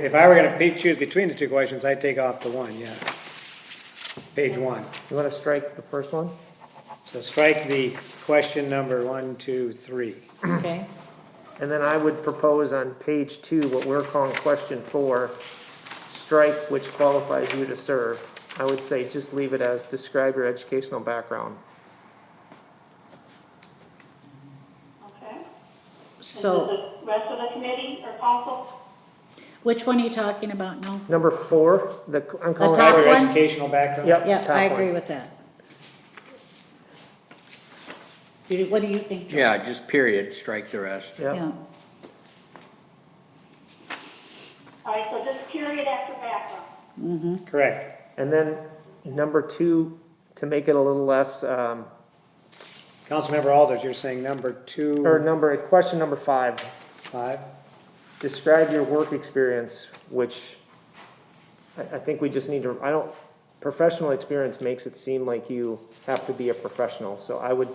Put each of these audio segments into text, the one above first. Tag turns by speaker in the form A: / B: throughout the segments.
A: if I were gonna pick, choose between the two questions, I'd take off the one, yeah. Page one.
B: You want to strike the first one?
A: So strike the question number one, two, three.
C: okay?
B: And then I would propose on page two, what we're calling question four, strike which qualifies you to serve. I would say just leave it as describe your educational background.
D: Okay. Is
C: So,
D: this the rest of the committee or council?
C: which one are you talking about now?
B: Number four, the, I'm calling.
C: top
A: Your
B: it-
C: one?
A: educational background?
B: Yep.
C: Yep,
B: top
C: I
B: one.
C: agree with that. Do you- What do you think? Joe?
E: Yeah, just period, strike the rest.
B: Yep,
D: All right, so just period after background.
A: Correct.
B: and then number two, to make it a little less, um,
A: Councilmember Alders, you're saying number
B: or
A: two,
B: number, question number five,
A: five?
B: describe your work experience, which I, I think we just need to, I don't, professional experience makes it seem like you have to be a professional, so I would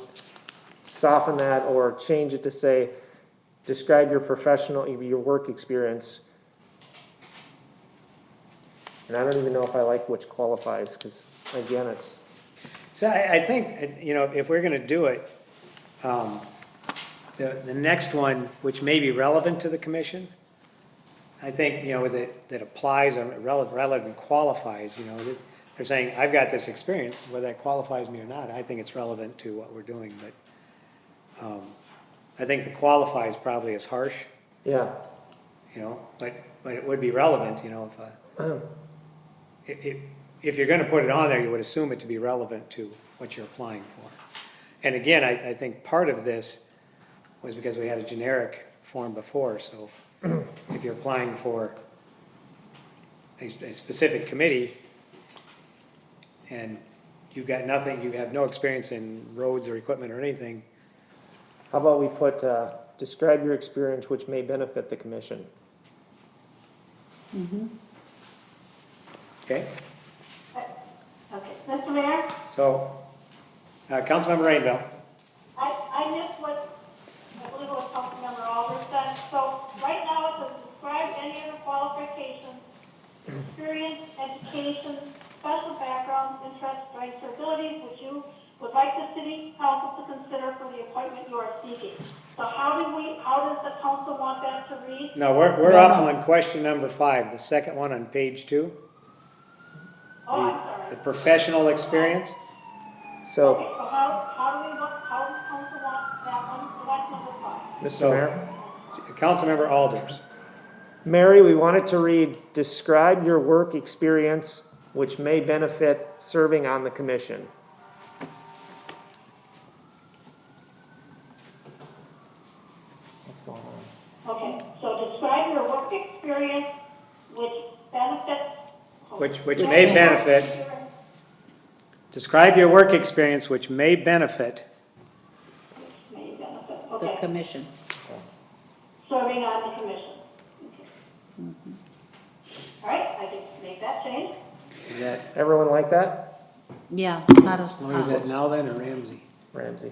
B: soften that or change it to say, describe your professional, your work experience. And I don't even know if I like which qualifies, because again, it's,
A: So I, I think, you know, if we're gonna do it, um, the, the next one, which may be relevant to the commission, I think, you know, that, that applies um, or relevant, relevant qualifies, you know, that they're saying, I've got this experience, whether that qualifies me or not, I think it's relevant to what we're doing, but, um, I think the qualifies probably is harsh,
B: yeah.
A: you know, but, but it would be relevant, you know, if, uh, if, if, if you're gonna put it on there, you would assume it to be relevant to what you're applying for. And again, I, I think part of this was because we had a generic form before, so if you're applying for a, a specific committee and you've got nothing, you have no experience in roads or equipment or anything,
B: How about we put, uh, describe your experience which may benefit the commission?
A: okay?
D: Okay, Mr. Mayor,
A: So, uh, Councilmember Rainville,
D: I, I missed what, I believe it was Councilmember Alders said. So right now, it says describe any of the qualifications, experience, education, special background, interests, rights, or abilities which you would like the city council to consider for the appointment you are seeking. So how do we, how does the council want that to read?
A: no, we're, we're
C: No,
A: up
C: no.
A: on question number five, the second one on page two.
D: Oh, I'm sorry.
A: The professional experience?
B: So.
D: Okay, so how, how do we, want- how does council want that one, so that's number five.
B: Mr.
A: So-
B: Mayor?
A: Councilmember Alders.
B: Mary, we wanted to read, describe your work experience which may benefit serving on the commission. What's going on?
D: Okay, so describe your work experience which benefits.
A: Which- which may benefit. Describe your work experience which may benefit.
D: Which May benefit,
C: The
D: okay,
C: commission.
D: serving on the commission. Okay. All right, I just make that change.
A: Is that,
B: Everyone like that?
C: Yeah, it's not as.
A: or is that now then or Ramsey?
B: Ramsey?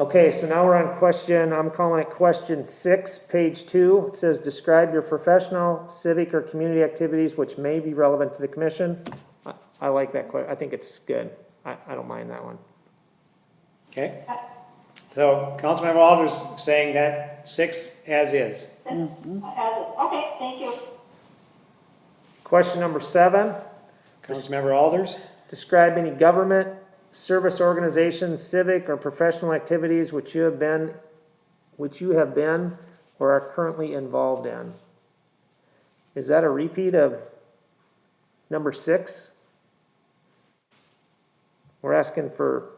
B: Okay, so now we're on question, I'm calling it question six, page two. It says, describe your professional, civic, or community activities which may be relevant to the commission. I- I like that que, I think it's good. I, I don't mind that one.
A: Okay? So Councilmember Alders saying that six as is.
D: As is. Okay, thank you.
B: Question number seven,
A: Councilmember Alders?
B: describe any government, service organization, civic, or professional activities which you have been, which you have been or are currently involved in. Is that a repeat of number six? We're asking for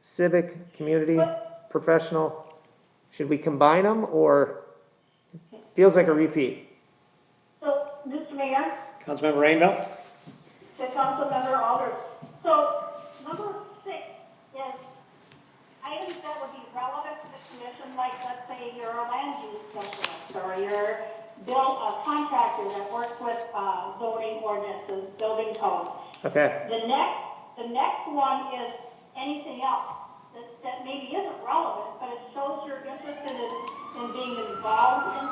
B: civic, community, professional. Should we combine them or feels like a repeat?
D: So, Mr. Mayor?
A: Councilmember Rainville?
D: to Councilmember Alders. So number six is items that would be relevant to the commission, like let's say you're a land use specialist or you're built a contractor that works with uh, zoning ordinances, building codes.
B: Okay.
D: The next, the next one is anything else that, that maybe isn't relevant, but it shows you're interested in, in being the involved in